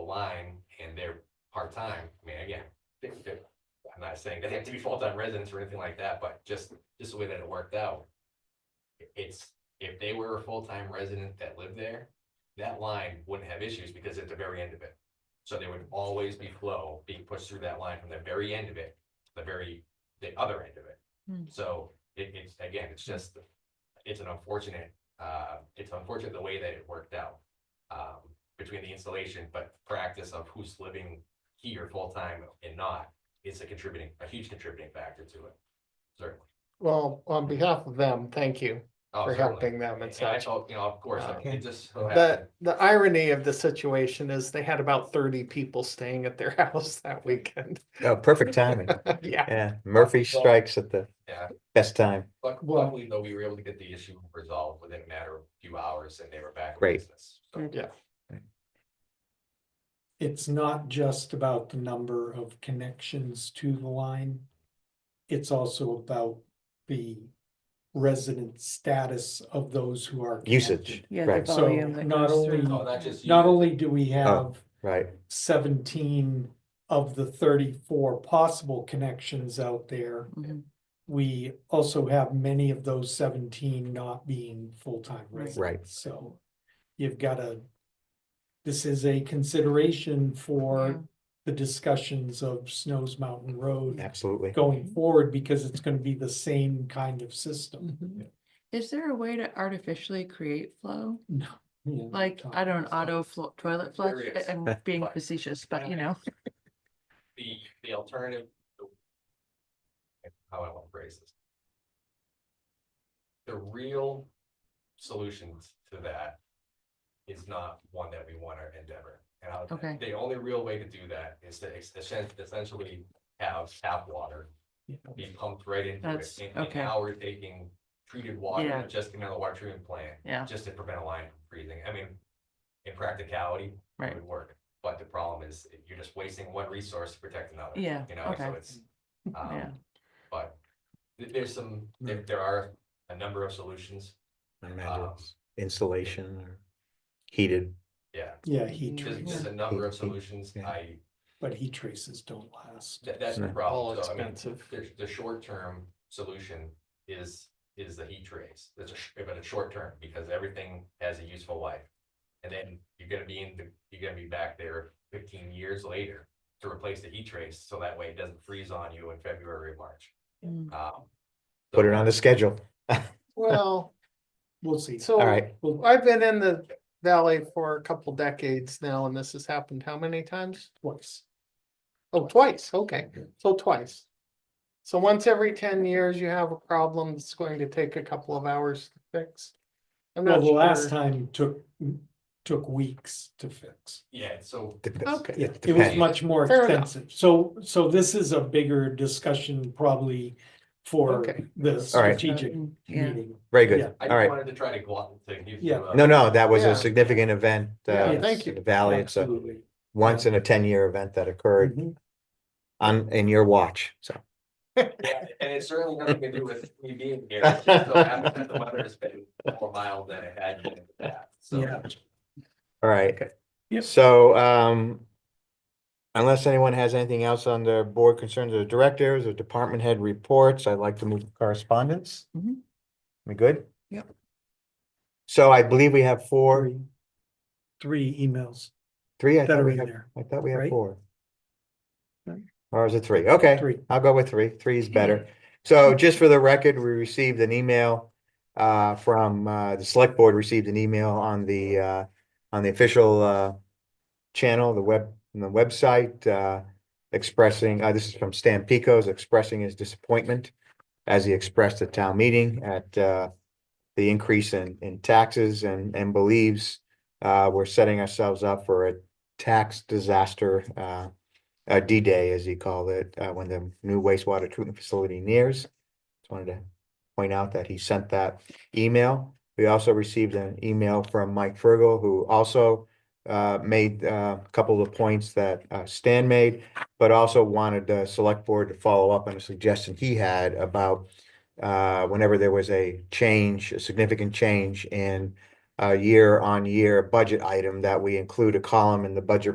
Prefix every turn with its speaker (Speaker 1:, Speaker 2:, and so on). Speaker 1: line and they're part-time, I mean, again, they- they- I'm not saying they have to be full-time residents or anything like that, but just, just the way that it worked out. It's, if they were a full-time resident that lived there, that line wouldn't have issues because at the very end of it. So there would always be flow being pushed through that line from the very end of it, to the very, the other end of
Speaker 2: Hmm.
Speaker 1: it. So it, it's, again, it's just, it's an unfortunate, uh, it's unfortunate the way that it worked out. Um, between the installation, but practice of who's living here full-time and not, is a contributing, a huge contributing factor to it. Certainly.
Speaker 3: Well, on behalf of them, thank you
Speaker 1: Oh,
Speaker 3: for
Speaker 1: certainly.
Speaker 3: helping them and
Speaker 1: And I
Speaker 3: such.
Speaker 1: felt, you know, of course, I-
Speaker 3: Okay.
Speaker 1: it just. so
Speaker 3: The,
Speaker 1: happened-
Speaker 3: the irony of the situation is they had about thirty people staying at their house that weekend.
Speaker 4: Oh, perfect timing.
Speaker 3: Yeah,
Speaker 4: Yeah, Murphy
Speaker 1: Well-
Speaker 4: strikes at the
Speaker 1: Yeah.
Speaker 4: best time.
Speaker 1: But
Speaker 3: Well-
Speaker 1: luckily, though, we were able to get the issue resolved within a matter of a few hours and they were back. in
Speaker 4: Great.
Speaker 1: business. So,
Speaker 3: yeah,
Speaker 5: it's not just about the number of connections to the line. It's also about the resident status of those who are.
Speaker 4: Usage,
Speaker 5: connected.
Speaker 2: Yeah,
Speaker 4: right,
Speaker 2: the
Speaker 5: So,
Speaker 2: volume that
Speaker 5: not
Speaker 2: goes
Speaker 5: only-
Speaker 2: through.
Speaker 1: No, not just. you.
Speaker 5: Not only do we have
Speaker 4: right.
Speaker 5: seventeen of the thirty-four possible connections out there,
Speaker 2: Mhm.
Speaker 5: we also have many of those seventeen not being full-time
Speaker 2: Right.
Speaker 5: residents.
Speaker 4: Right.
Speaker 5: So you've got to, this is a consideration
Speaker 2: Yeah.
Speaker 5: for the discussions of Snows Mountain Road
Speaker 4: Absolutely.
Speaker 5: going forward because it's going to be the same kind of system.
Speaker 2: Mhm. Is there a way to artificially create flow?
Speaker 5: No. Yeah.
Speaker 2: Like, I don't auto flo- toilet flush,
Speaker 1: There
Speaker 2: I-
Speaker 1: is,
Speaker 2: I'm being
Speaker 1: but-
Speaker 2: facetious, but you know,
Speaker 1: The, the alternative. How I want to phrase this. The real solution to that is not one that we want to endeavor. And I'll-
Speaker 2: Okay.
Speaker 1: the only real way to do that is to ex- essen- essentially have tap water
Speaker 5: Yeah.
Speaker 1: be pumped right into it.
Speaker 2: That's-
Speaker 1: And- And
Speaker 2: okay.
Speaker 1: now we're taking treated water,
Speaker 2: Yeah.
Speaker 1: and just another water treatment plant,
Speaker 2: yeah,
Speaker 1: just to prevent a line from freezing. I mean, in practicality, it
Speaker 2: right.
Speaker 1: would work. But the problem is you're just wasting one resource to protect another.
Speaker 2: Yeah,
Speaker 1: You know, so
Speaker 2: okay.
Speaker 1: it's,
Speaker 2: Yeah.
Speaker 1: um, but th- there's some, there, there are a number of solutions.
Speaker 4: I imagine
Speaker 1: Um,
Speaker 4: it's Insulation or heated.
Speaker 1: Yeah,
Speaker 5: Yeah, heat
Speaker 2: Yeah.
Speaker 1: there's,
Speaker 5: traces,
Speaker 1: there's a number of
Speaker 4: Yeah.
Speaker 1: solutions.
Speaker 4: Yeah.
Speaker 1: I,
Speaker 5: but heat traces don't last.
Speaker 1: that, that's the
Speaker 4: Yeah.
Speaker 3: all
Speaker 1: problem. So I mean,
Speaker 3: expensive.
Speaker 1: the, the short-term solution is, is the heat trace. That's a, sh- but a short-term because everything has a useful life. And then you're gonna be in the, you're gonna be back there fifteen years later to replace the heat trace. So that way it doesn't freeze on you in February, or March.
Speaker 2: Mm.
Speaker 1: Um,
Speaker 4: Put it on the schedule.
Speaker 3: Well,
Speaker 5: We'll see.
Speaker 3: so
Speaker 4: All right.
Speaker 5: Well,
Speaker 3: I've been in the valley for a couple decades now and this has happened how many times?
Speaker 5: twice.
Speaker 3: Oh, twice, okay, so twice. So once every ten years you have a problem, it's going to take a couple of hours to fix. I'm
Speaker 5: Well,
Speaker 3: not
Speaker 5: the last
Speaker 3: sure.
Speaker 5: time took, took weeks to fix.
Speaker 1: Yeah, so
Speaker 4: Dep-
Speaker 3: Okay.
Speaker 5: Yeah, it was
Speaker 4: depends.
Speaker 5: much more
Speaker 3: Fair enough.
Speaker 5: expensive. So, so this is a bigger discussion probably for
Speaker 3: Okay. Um,
Speaker 5: the
Speaker 4: right.
Speaker 5: strategic
Speaker 2: Mm, Yeah,
Speaker 5: meeting.
Speaker 4: Very
Speaker 5: Yeah.
Speaker 4: good.
Speaker 1: I
Speaker 4: All
Speaker 1: just
Speaker 4: right.
Speaker 1: wanted to try to go out to give
Speaker 5: Yeah.
Speaker 1: you. a-
Speaker 4: No, no, that was
Speaker 3: Yeah.
Speaker 4: a significant event.
Speaker 3: Yeah,
Speaker 4: uh,
Speaker 3: thank you.
Speaker 4: in the Valley. It's a
Speaker 5: Absolutely.
Speaker 4: once in a ten-year event that occurred
Speaker 3: Mm-hmm.
Speaker 5: Mhm.
Speaker 4: on, in your watch. So,
Speaker 1: Yeah, And it's certainly nothing to do with me being here. It just so happens that The weather has been more mild than it had been in the past.
Speaker 5: Yeah.
Speaker 1: So
Speaker 4: all right.
Speaker 5: Yep.
Speaker 4: So, um, unless anyone has anything else on their board concerns or directors or department head reports, I'd like to move to correspondence.
Speaker 5: Mm-hmm.
Speaker 2: Mhm.
Speaker 4: We good?
Speaker 2: Yep.
Speaker 4: So I believe we have four,
Speaker 5: Three- Three emails
Speaker 4: three, I
Speaker 5: that
Speaker 4: thought
Speaker 5: are
Speaker 4: we
Speaker 5: in
Speaker 4: had,
Speaker 5: there,
Speaker 4: I thought we had
Speaker 5: right?
Speaker 4: four.
Speaker 5: No.
Speaker 4: Or is it three? Okay.
Speaker 5: three.
Speaker 4: I'll go with three. Three is better. So just for the record, we received an email uh, from, uh, the select board received an email on the, uh, on the official, uh, channel, the web, the website, uh, expressing, uh, this is from Stan Picos, expressing his disappointment as he expressed at town meeting at, uh, the increase in, in taxes and, and believes, uh, we're setting ourselves up for a tax disaster, uh, uh, D-Day, as he called it, uh, when the new wastewater treatment facility nears. Just wanted to point out that he sent that email. We also received an email from Mike Fergel, who also uh, made uh, a couple of points that uh, Stan made, but also wanted the select board to follow up on a suggestion he had about uh, whenever there was a change, a significant uh, change in a year-on-year budget item, that we include a column in the budget